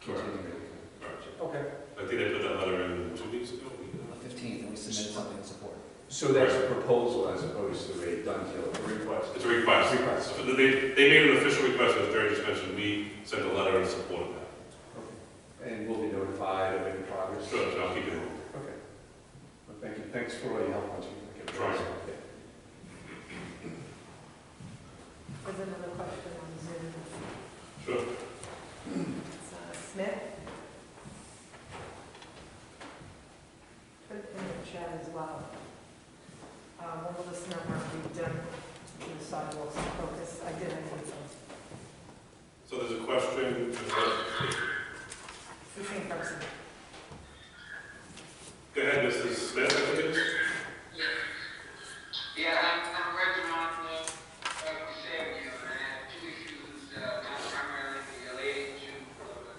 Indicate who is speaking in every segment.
Speaker 1: Continue.
Speaker 2: Right.
Speaker 3: Okay.
Speaker 2: I think they put that letter in two weeks ago. we did
Speaker 4: On the 15th, and we submitted something in support.
Speaker 1: So that's a proposal as opposed to a done deal.
Speaker 2: that. Request. It's a request.
Speaker 1: Request.
Speaker 2: So They, they made an official request, as Barry just mentioned, we sent a letter in support of that.
Speaker 1: And we'll be notified of any progress.
Speaker 2: Sure, so I'll keep it.
Speaker 1: Okay. Well, Thank you, thanks for all your help on it.
Speaker 2: Sure.
Speaker 5: There's another question on Zoom.
Speaker 2: Sure.
Speaker 5: It's, uh, Smith? Put it in the chat as well. Uh, When will this number be done, the sidewalks and focus, I did, I think so.
Speaker 2: So there's a question,
Speaker 5: It's the same person.
Speaker 2: go ahead, Mrs. Smith, I think it is.
Speaker 6: Yeah, I'm, I'm working on the, like you said, you know, I have two issues, uh, primarily related to, uh,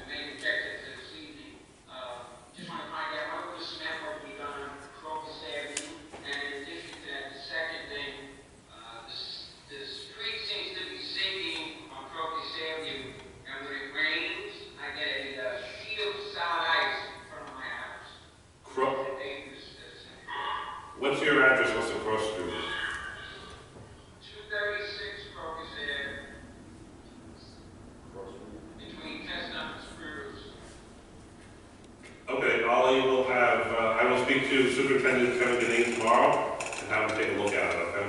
Speaker 6: the main objective of this evening. Uh, just want to find out what the SNAP will be done on Crocus Avenue, and in addition to that, the second thing, uh, the, s- the street seems to be sinking on Crocus Avenue, and when it rains, I get a, uh, sheet of solid ice in front of my house.
Speaker 2: Cro-
Speaker 6: It's a dangerous, uh,
Speaker 2: What's your address, what's the cross street?
Speaker 6: 236 Crocus Ave, between Chestnut and Spruce.
Speaker 2: Okay, Ollie will have, uh, I will speak to Superintendent Kevin Deneen tomorrow and have him take a look at it, okay?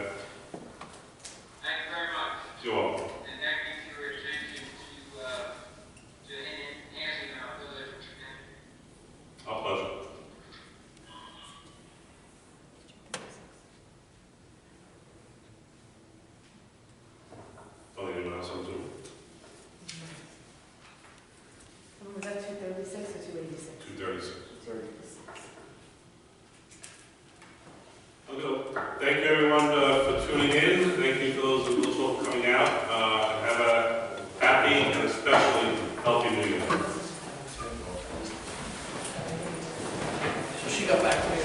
Speaker 6: Thank you very much,
Speaker 2: You're welcome.
Speaker 6: and thank you for your attention to, uh, to enhancing our village community.
Speaker 2: Our pleasure. Don't even ask him to,
Speaker 5: Um, Was that two thirty-six or two eighty-six?
Speaker 2: two thirty-six.
Speaker 5: Two thirty-six.
Speaker 2: Okay, thank you everyone uh, for tuning in, thank you for those who will be coming out, Uh, have a happy and especially healthy new year.
Speaker 4: So she got back to me